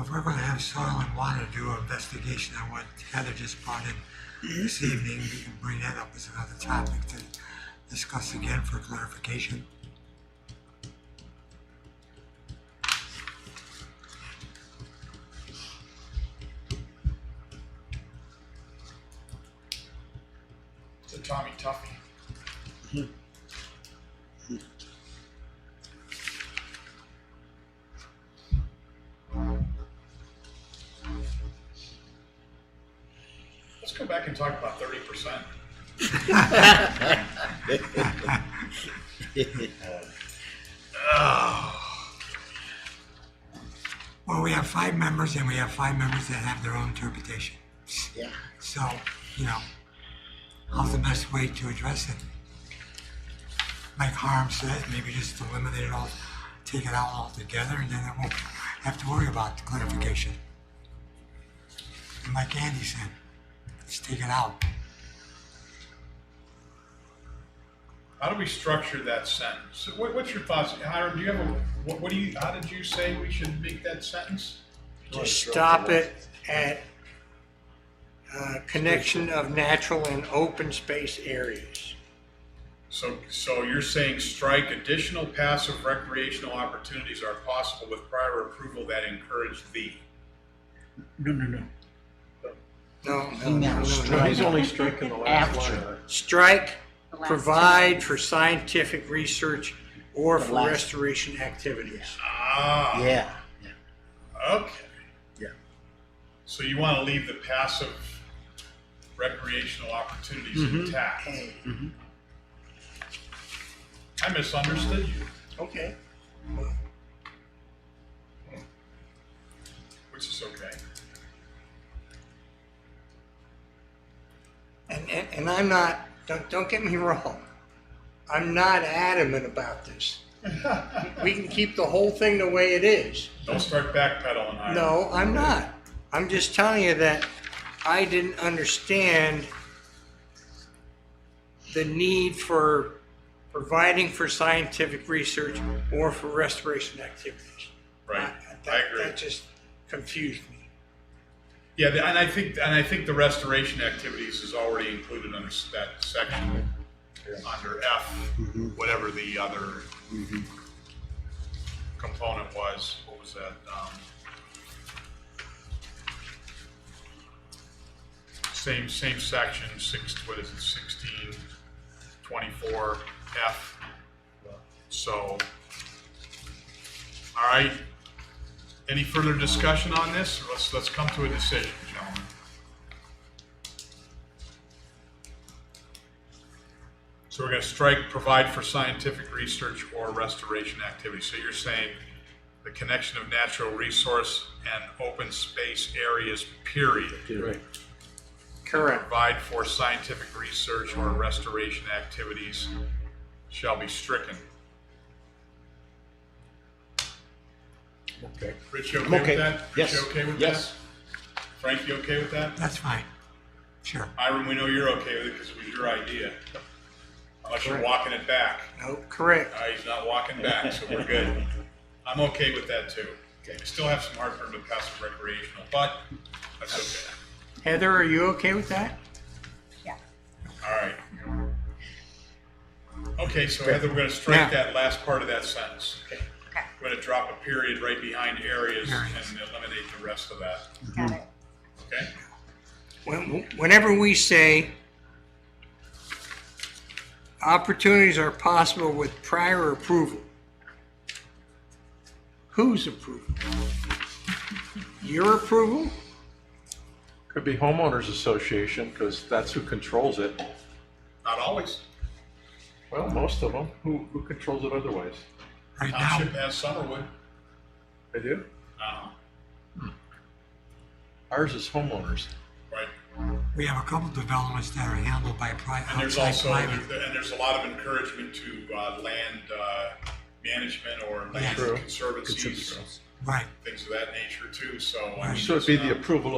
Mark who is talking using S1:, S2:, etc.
S1: If we're gonna have soil and water do an investigation on what Heather just brought in this evening, we can bring that up as another topic to discuss again for clarification.
S2: It's a Tommy Tuffy. Let's go back and talk about thirty percent.
S1: Well, we have five members and we have five members that have their own interpretation.
S3: Yeah.
S1: So, you know, how's the best way to address it? Like Harm said, maybe just eliminate it all, take it out altogether, and then I won't have to worry about the clarification. And like Andy said, just take it out.
S2: How do we structure that sentence? So What, what's your thoughts, Hiram? Do you have a, what, what do you, how did you say we should make that sentence?
S4: to stop it at uh, connection of natural and open space areas.
S2: So, so you're saying strike additional passive recreational opportunities are possible with prior approval that encourage the.
S4: No, no, no. No, no, no,
S3: No,
S4: no,
S5: No, he's
S4: no.
S5: only striking the last line.
S3: After.
S4: Strike,
S6: The last
S4: provide for scientific research or for
S3: last-
S4: restoration activities.
S2: Ah.
S3: Yeah.
S2: Okay.
S3: Yeah.
S2: So you want to leave the passive recreational opportunities
S4: Mhm.
S2: intact?
S4: Mhm.
S2: I misunderstood you,
S4: Okay.
S2: which is okay.
S4: And, and, and I'm not, don't, don't get me wrong, I'm not adamant about this. We can keep the whole thing the way it is.
S2: Don't start backpedaling. Ira.
S4: No, I'm not. I'm just telling you that I didn't understand the need for providing for scientific research or for restoration activities.
S2: Right.
S4: That-
S2: I agree.
S4: That just confused me.
S2: Yeah, the- and I think, and I think the restoration activities is already included under s- that section, under F, whatever the other component was, what was that? um, Same, same section, six, what is it, sixteen, twenty-four, F. So, all right, any further discussion on this? Or Let's, let's come to a decision, gentlemen. So we're gonna strike provide for scientific research or restoration activity. So you're saying the connection of natural resource and open space areas, period.
S5: Right.
S4: Correct.
S2: Provide for scientific research or restoration activities shall be stricken.
S5: Okay.
S2: Rich, you
S5: I'm
S2: okay
S5: okay.
S2: with that? Rich,
S5: Yes.
S2: you okay with
S5: Yes.
S2: that? Frank, you okay with that?
S1: That's fine. Sure.
S2: Hiram, we know you're okay with it because it was your idea. Unless you're
S4: Correct.
S2: walking it back.
S4: No, correct.
S2: Uh, he's not walking back, so we're good. I'm okay with that too. I still have some heartburn with passive recreational, but that's okay.
S4: Heather, are you okay with that?
S6: Yeah.
S2: All right. Okay, so Heather, we're gonna strike that last part of that sentence.
S6: Okay,
S2: We're gonna drop a period right behind areas
S1: Areas.
S2: and eliminate the rest of that,
S6: got it.
S2: okay?
S4: When- Whenever we say opportunities are possible with prior approval, whose approval? Your approval?
S5: Could be homeowners association, because that's who controls it.
S2: Not always.
S5: Well, most of them. Who, who controls it otherwise?
S1: Right now,
S2: Township has Summerwood.
S5: They do?
S2: Uh,
S5: Ours is homeowners.
S2: Right.
S1: we have a couple developments that are handled by pri-
S2: And there's
S1: outside
S2: also,
S1: private.
S2: and there's a lot of encouragement to uh, land uh, management or land
S5: True.
S2: conservancies,
S5: Conservancies.
S1: Right.
S2: things of that nature too, so. I mean,
S5: So it'd be
S2: it's
S5: the
S2: not-
S5: approval